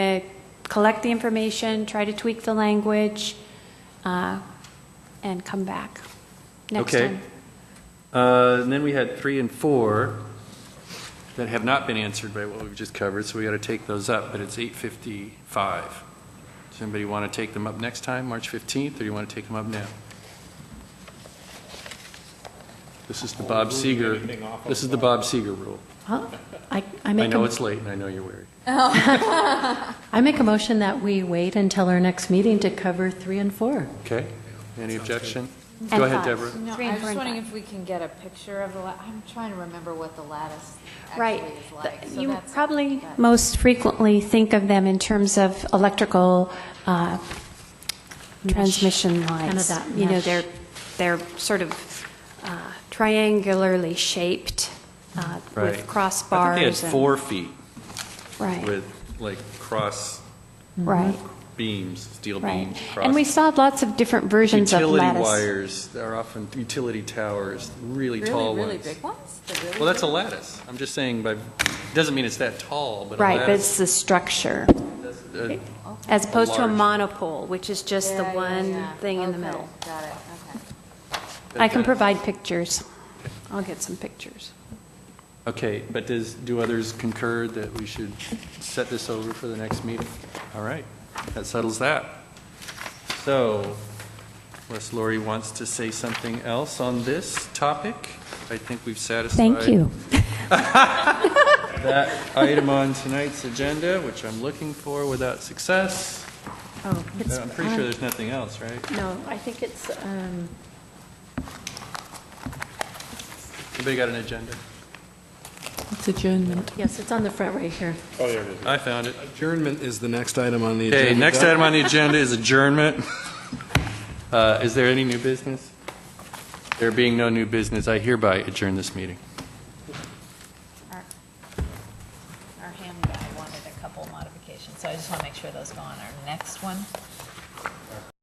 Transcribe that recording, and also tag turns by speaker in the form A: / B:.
A: to collect the information, try to tweak the language, uh, and come back next
B: Okay.
A: time.
B: Uh, And then we had three and four that have not been answered by what we've just covered, so we got to take those up, but it's 8:55. Does anybody want to take them up next time, March 15th, or do you want to take them up now? This is the Bob Seeger, this is the Bob Seeger rule.
C: Huh? I, I
B: I
C: make,
B: know
C: a-
B: it's late, and I know you're weary.
C: I make a motion that we wait until our next meeting to cover three and four.
B: Okay? Any objection?
A: And
B: Go ahead,
A: five.
B: Deborah.
D: No,
A: Three
D: I
A: and
D: was
A: four
D: just
A: and
D: wondering
A: five.
D: if we can get a picture of the, la- I'm trying to remember what the lattice actually
A: Right.
D: is like. so
A: You
D: that's-
A: probably
D: that-
A: most frequently think of them in terms of electrical uh,
C: Mesh.
A: transmission lines.
C: Kind of that
A: You know,
C: mesh.
A: they're, they're sort of uh, triangularly shaped uh,
B: Right.
A: with crossbars.
B: I think they had
A: and-
B: four feet
A: Right,
B: with, like, cross
A: right,
B: beams, steel beams.
A: right. And we
B: cross-
A: saw lots of different versions of
B: Utility
A: lattice.
B: wires, they're often utility towers, really tall
D: Really,
B: ones.
D: really big ones? The really
B: Well, that's a
D: big-
B: lattice. I'm just saying, by, doesn't mean it's that tall, but a
A: Right, but
B: lattice.
A: it's the structure,
B: uh,
A: as opposed to a
B: large-
A: monopole, which is just the
D: Yeah, yeah,
A: one
D: yeah.
A: thing in the
D: Okay,
A: middle.
D: Got it, okay.
A: I can
B: that-
A: provide pictures. I'll get some pictures.
B: Okay, but does, do others concur that we should set this over for the next meeting? All right, that settles that. So, unless Lori wants to say something else on this topic, I think we've satisfied.
A: Thank you.
B: That item on tonight's agenda, which I'm looking for without success.
C: Oh, it's
B: I'm pretty sure
C: on-
B: there's nothing else, right?
C: No, I think it's, um,
B: Anybody got an agenda?
E: It's adjournment.
C: yes, it's on the front right here.
B: I found it.
F: Adjournment is the next item on the agenda.
B: Okay, next
F: That-
B: item on the agenda is adjournment. Uh, Is there any new business? There being no new business, I hereby adjourn this meeting.
D: Our our ham guy wanted a couple modifications, so I just want to make sure those go on our next one.